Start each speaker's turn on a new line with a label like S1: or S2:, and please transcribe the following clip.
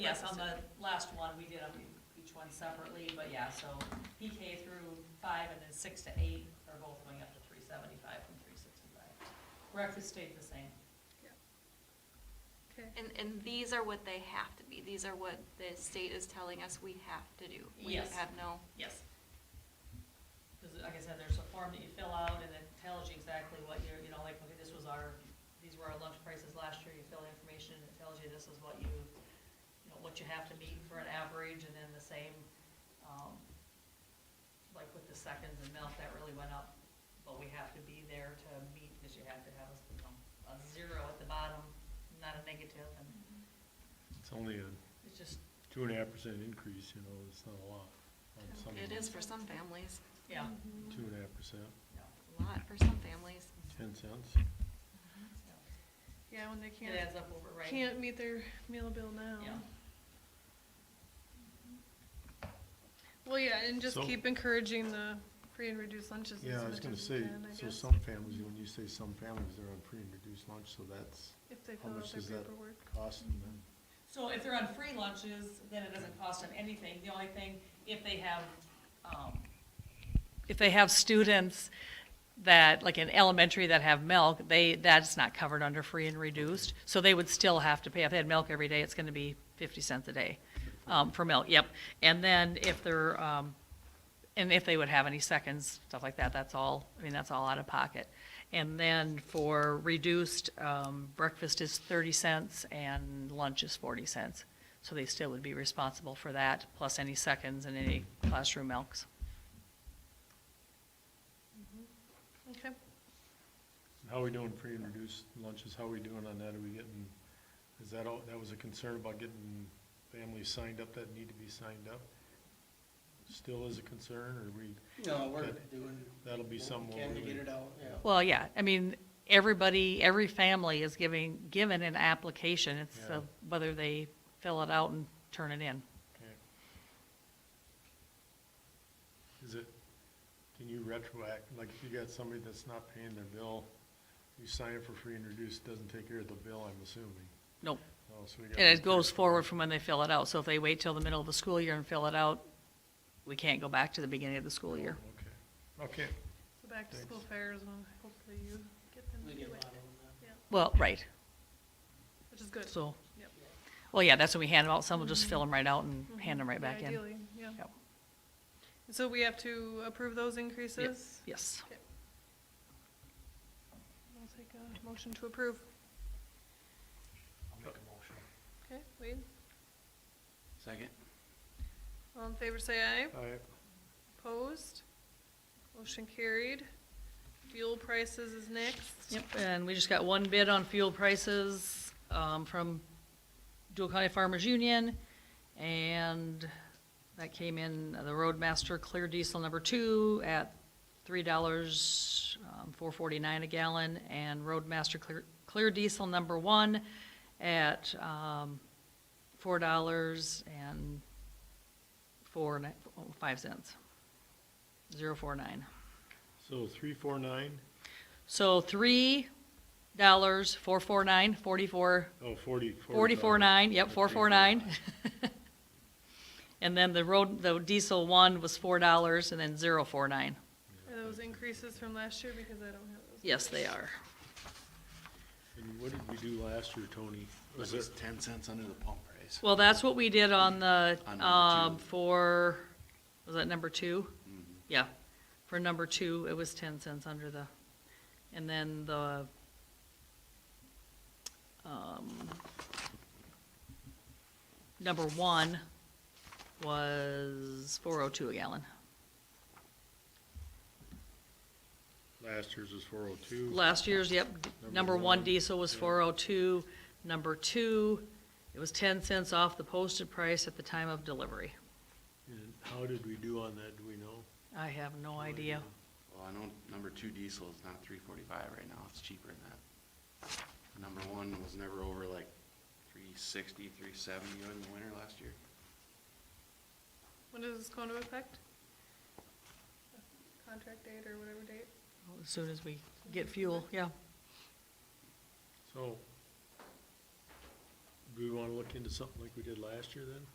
S1: Yes, on the last one, we did them each one separately, but yeah, so PK through five and then six to eight are both going up to three seventy-five from three sixty-five. Breakfast stayed the same.
S2: Okay.
S3: And, and these are what they have to be, these are what the state is telling us we have to do. We
S1: Yes.
S3: have no,
S1: Yes. Because like I said, there's a form that you fill out and it tells you exactly what you're, you know, like, okay, this was our, these were our lunch prices last year, you fill the information and it tells you this is what you, you know, what you have to meet for an average and then the same, um, like with the seconds and milk, that really went up, but we have to be there to meet, because you have to have a, you know, a zero at the bottom, not a negative, and
S4: It's only a
S1: it's just,
S4: two and a half percent increase, you know, it's not a lot. on some of
S3: it
S4: them.
S3: is for some families,
S1: yeah,
S2: Mm-hmm.
S4: Two and a half percent,
S1: no,
S3: a lot for some families.
S4: ten cents.
S1: no.
S2: Yeah, when they
S1: It
S2: can't,
S1: adds up over, right?
S2: can't meet their meal bill now.
S1: Yeah.
S2: Well, yeah, and just
S4: So-
S2: keep encouraging the free and reduced lunches as
S4: Yeah, I was
S2: much
S4: gonna
S2: as you
S4: say,
S2: can, I
S4: so
S2: guess.
S4: some families, when you say some families, they're on free and reduced lunch, so that's
S2: If they
S4: how
S2: fill out
S4: much
S2: their
S4: does that-
S2: paperwork.
S4: costing them.
S1: So if they're on free lunches, then it doesn't cost them anything. The only thing, if they have, um. If they have students that, like in elementary that have milk, they, that's not covered under free and reduced. So they would still have to pay. If they had milk every day, it's gonna be fifty cents a day, um, for milk, yep. And then if they're, um, and if they would have any seconds, stuff like that, that's all, I mean, that's all out of pocket. And then for reduced, um, breakfast is thirty cents and lunch is forty cents. So they still would be responsible for that, plus any seconds and any classroom milks.
S2: Okay,
S4: How we doing free and reduced lunches, how we doing on that, are we getting, is that all, that was a concern about getting families signed up that need to be signed up? Still is a concern, or we,
S5: No, we're
S4: Good.
S5: doing.
S4: That'll be
S5: what we
S4: some way
S5: Can to
S4: we-
S5: get it out, yeah.
S1: Well, yeah, I mean, everybody, every family is giving, given an application, it's uh,
S4: Yeah.
S1: whether they fill it out and turn it in.
S4: okay. Is it, can you retroact, like if you got somebody that's not paying their bill, you sign up for free and reduced, doesn't take care of the bill, I'm assuming.
S1: Nope,
S4: Oh, so we got
S1: and it
S4: one
S1: goes
S4: person.
S1: forward from when they fill it out, so if they wait till the middle of the school year and fill it out, we can't go back to the beginning of the school year.
S4: Okay, okay,
S2: so back to school
S4: Thanks.
S2: fairs, when hopefully you get them
S5: We
S2: to
S5: get a
S2: do
S5: lot
S2: it,
S5: of them. now.
S1: Well, right,
S2: which is good.
S1: so,
S2: Yep.
S1: well, yeah, that's when we hand them out, some will just fill them right out and
S2: Mhm.
S1: hand them
S2: Yeah,
S1: right back in.
S2: Ideally, yeah.
S1: Yep.
S2: And So we have to approve those increases?
S1: Yes,
S2: I'll take a motion to approve.
S5: I'll make a motion.
S2: Okay, Wade,
S5: Second.
S2: all in favor, say aye.
S4: all right,
S2: Opposed? Motion carried. Fuel prices is next.
S1: yep, and we just got one bid on fuel prices, um, from Dual County Farmers Union, and that came in, uh, the Roadmaster Clear Diesel number two at three dollars, um, four forty-nine a gallon, and Roadmaster Clear, Clear Diesel number one at, um, four dollars and four, ni- oh, five cents. Zero four nine.
S4: so three, four, nine,
S1: So three dollars, four four nine, forty-four,
S4: oh, forty.
S1: forty-four nine, yep,
S4: Okay,
S1: four four nine. And then the road, the diesel one was four dollars and then zero four nine.
S2: Are those increases from last year? Because I don't have those.
S1: Yes, they are.
S4: And what did we do last year, Tony? Was
S6: Was
S4: it,
S6: this ten cents under the pump price?
S1: Well, that's what we did on the,
S6: On number
S1: um,
S6: two.
S1: for, was that number two?
S6: Mhm.
S1: Yeah, for number two, it was ten cents under the, and then the, um, number one was four oh two a gallon.
S4: last year's was four oh two?
S1: Last year's, yep, d-
S4: Number
S1: number one
S4: one,
S1: diesel was
S4: yeah.
S1: four oh two, number two, it was ten cents off the posted price at the time of delivery.
S4: And how did we do on that, do we know?
S1: I have no idea.
S6: Well, I know number two diesel is not three forty-five right now, it's cheaper than that. Number one was never over like three sixty, three seventy in the winter last year.
S2: When is this going to affect? Contract date or whatever date?
S1: As soon as we get fuel, yeah.
S4: So, do we wanna look into something like we did last year then?